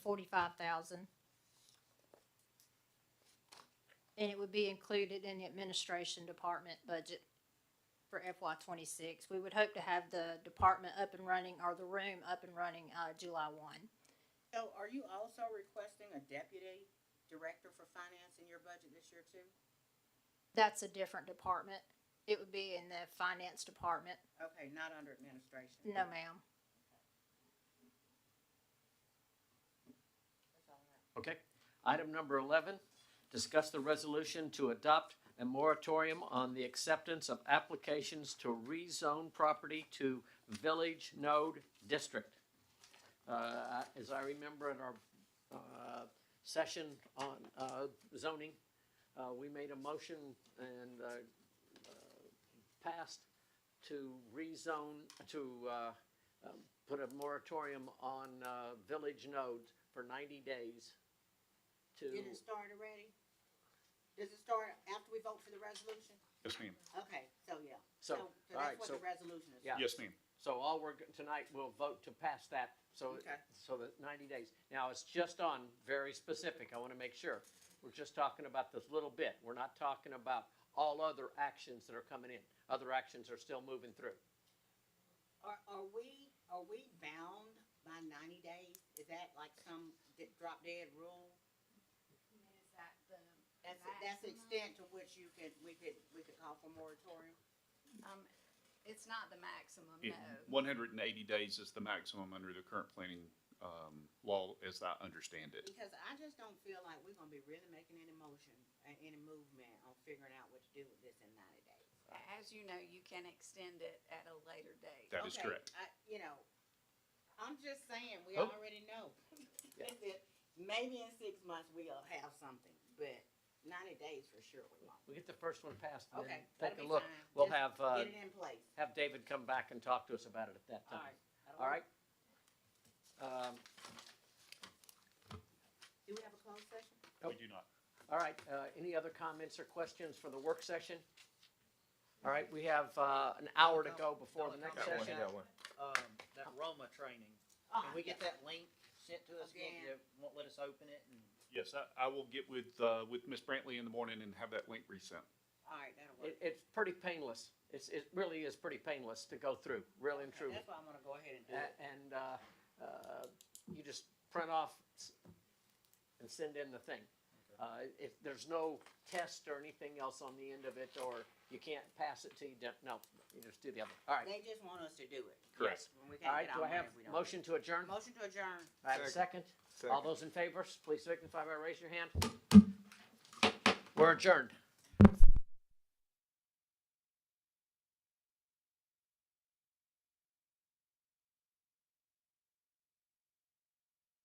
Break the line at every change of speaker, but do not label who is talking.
forty-five thousand. And it would be included in the administration department budget for FY twenty-six. We would hope to have the department up and running, or the room up and running, uh, July one.
So are you also requesting a deputy director for finance in your budget this year too?
That's a different department. It would be in the finance department.
Okay, not under administration.
No, ma'am.
Okay. Item number eleven, discuss the resolution to adopt a moratorium on the acceptance of applications to rezone property to Village Node District. Uh, as I remember at our, uh, session on, uh, zoning, uh, we made a motion and, uh, uh, passed to rezone, to, uh, um, put a moratorium on, uh, village nodes for ninety days to,
Did it start already? Does it start after we vote for the resolution?
Yes, ma'am.
Okay, so yeah.
so, all right,
that's what
so,
the resolution is.
yeah.
Yes, ma'am.
So all we're, go- tonight, we'll vote to pass that, so,
Okay.
so that ninety days. Now, it's just on very specific, I wanna make sure. We're just talking about this little bit, we're not talking about all other actions that are coming in. Other actions are still moving through.
Are, are we, are we bound by ninety days? Is that like some di- drop dead rule? That's, that's the extent to which you could, we could, we could call for moratorium?
Um, it's not the maximum,
It-
no.
One hundred and eighty days is the maximum under the current planning, um, law as I understand it.
Because I just don't feel like we're gonna be really making any motion, uh, any movement on figuring out what to do with this in ninety days.
A- As you know, you can extend it at a later date.
That is
Okay,
correct.
I, you know, I'm just saying, we
Oh.
already know.
Yeah.
Maybe in six months we'll have something, but ninety days for sure we won't.
We get the first one passed and then
Okay, that'll
take a
be
look.
fine.
We'll
Just
have, uh,
Get it in place.
have David come back and talk to us about it at that
All
time.
right. I don't
All right?
know.
Um,
Do we have a closed session?
Nope.
We do not.
All right, uh, any other comments or questions for the work session? All right, we have, uh, an hour to go before the next
Got one,
session.
got one.
um, that Roma training.
Ah,
Can we get that link sent to us? Won't
Again.
you- Won't let us open it and?
Yes, I, I will get with, uh, with Ms. Brantley in the morning and have that link resent.
All right, that'll work.
It, it's pretty painless. It's, it really is pretty painless to go through, real and
Okay,
true.
That's why I'm gonna go ahead and
A-
do it.
And, uh, uh, you just print off s- and send in the thing. Uh, if, there's no test or anything else on the end of it, or you can't pass it to you, don't- no, you just do the other. All right,
They just want us to do it.
Correct.
When we
all
can't
right,
get
do
our
I have
money, we don't.
motion to adjourn?
Motion to adjourn.
I have a second? All
Second.
those in favor, please signify by raising your hand. We're adjourned.